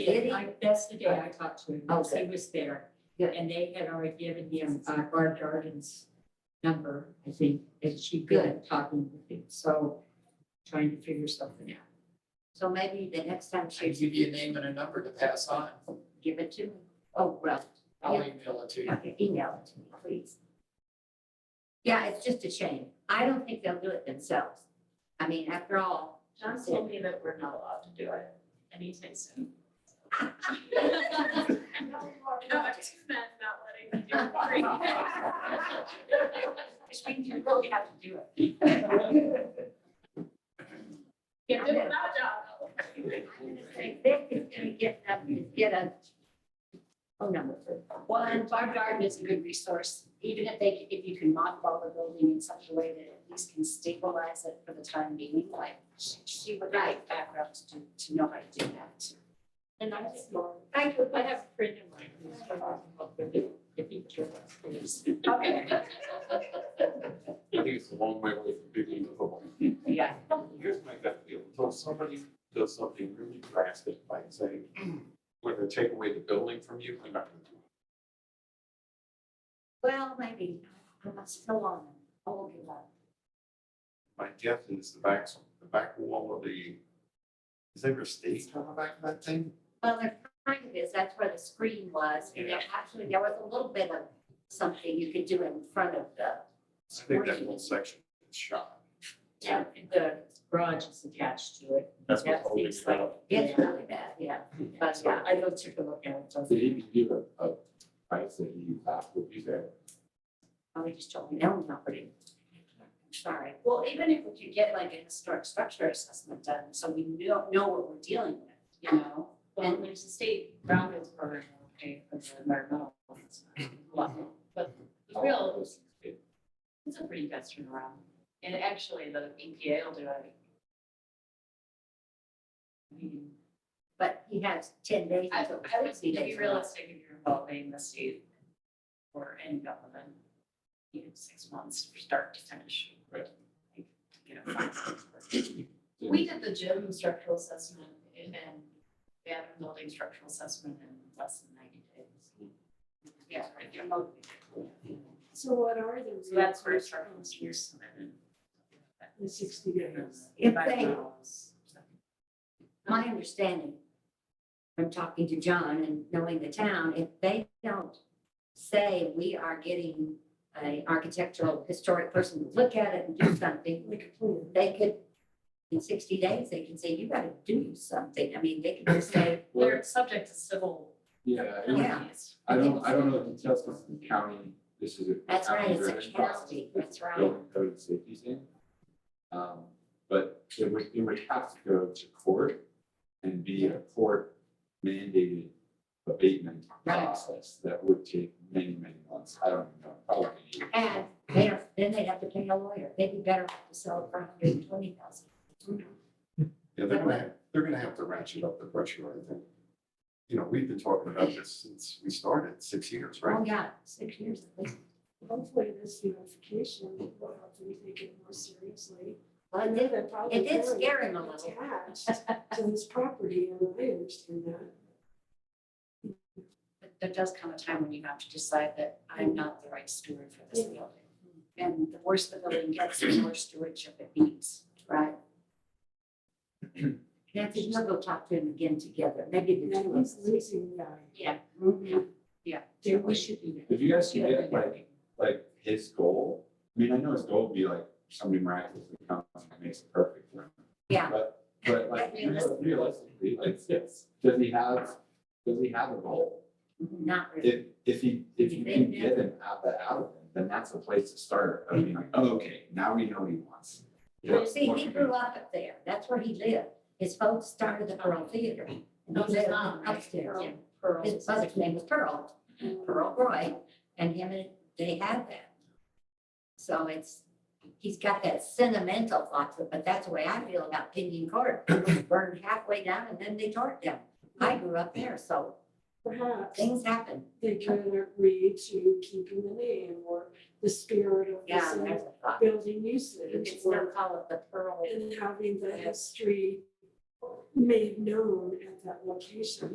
I, that's the day I talked to him, because he Okay. was there. Yeah. And they had already given him, uh, Barb Darden's number, I think, and she'd been talking with him, so trying to figure something out. So maybe the next time I she give you a name and a number to pass on. give it to me. Oh, well, I'll Yeah. email it to you. okay, email it to me, please. Yeah, it's just a shame. I don't think they'll do it themselves. I mean, after all, John told me that we're not allowed to do it anytime soon. No, I just meant not letting me do it for you. Which means you really have to do it. Can't do it without John. I'm gonna say Vic is gonna get up and get a phone number for Well, and Barb Garden is a good resource, even if they, if you can mothball the building in such a way that at least can stabilize it for the time being, like, she, she would like background to, do- to know how to do that. And I just, Thank you. I have a friend of mine who's from Oklahoma, if he cares. Okay. I think it's a long way away from being livable. Yeah. Here's my gut feel, until somebody does something really drastic by saying, we're gonna take away the building from you, I'm not gonna do it. Well, maybe. I'm still on. I won't give up. My guess is the back, the back wall of the, is there a stage on the back of that thing? Well, there kind of is. That's where the screen was. And there actually, there was a little bit of something you could do in front of the I think that whole section is shot. Yeah, the garage is attached to it. That's That seems like. It's really bad, yeah. But yeah, I don't take a look at it. Did he give a, a price that he asked what you said? Probably just told me that was not pretty. I'm Sorry. Well, even if we could get like a historic structure assessment done, so we know, know what we're dealing with, you know? Well, there's a state brownfields program, okay, for the environmental. ones. Well, But the real, it's a pretty fast turnaround. And actually, the EPA will do it. I mean, But he has ten days. I, until I would 60 say to be days. realistic, if you're involving the state or any government, you know, six months from start to finish. Right. Like, You know, five, six months. We did the gym structural assessment and the other building structural assessment in less than ninety days. Yeah, right, they're motivated. So what are the So that's where structural engineers submitted. The sixty days. If they- Environmentals. My understanding from talking to John and knowing the town, if they don't say we are getting an architectural historic person to look at it and do something, Like a plan. they could, in sixty days, they can say, you gotta do something. I mean, they could just say, They're subject to civil. Yeah, and Yeah. penalties. I don't, I don't know the details, because the county, this is a. that's right, it's county-driven a process, county, that's right. Building code and safety thing. Um, but it would, it would have to go to court and be a court mandated abatement Right. process that would take many, many months. I don't know, probably years. And they are, then they'd have to pay a lawyer. They'd be better off to sell it for hundred and twenty thousand. Yeah, they're gonna, have- they're gonna have to ratchet up the pressure, I think. You know, we've been talking about this since we started, six years, right? Oh, yeah, six years at least. Hopefully this unification will help them take it more seriously. Well, it They're did, probably it did very scare him a little. Attached to this property and I understand that. But there does come a time when you have to decide that I'm not the right steward for this building. And the worse the building gets, the more stewardship it needs. Right. Nancy, you'll go talk to him again together, maybe the And I two of us. was losing that. Mhm. They, we should do that. If you guys can get like like his goal, I mean, I know his goal would be like somebody miraculously comes and makes it perfect for him. Yeah. But, but like But realistically- realistically, like, yes, does he have, does he have a goal? Not really. If, if he, if you can get him out that out of him, then that's a place to start, I mean, like, oh, okay, now we know what he wants. You see, he grew up up there, that's where he lived. His folks started the Pearl Theater. and he Oh, No, lived it's not, right? Upstairs, yeah. Pearl. His mother's name was Pearl, Pearl Roy, and him and they had that. So it's, he's got that sentimental thought, to it, but that's the way I feel about Pinion Court. It was Burned halfway down and then they tore it down. I grew up there, so Perhaps things happen. they can agree to keeping the name or the spirit of Yeah, this there's a thought. building You usage could still or call it the Pearl. and having the history made known at that location.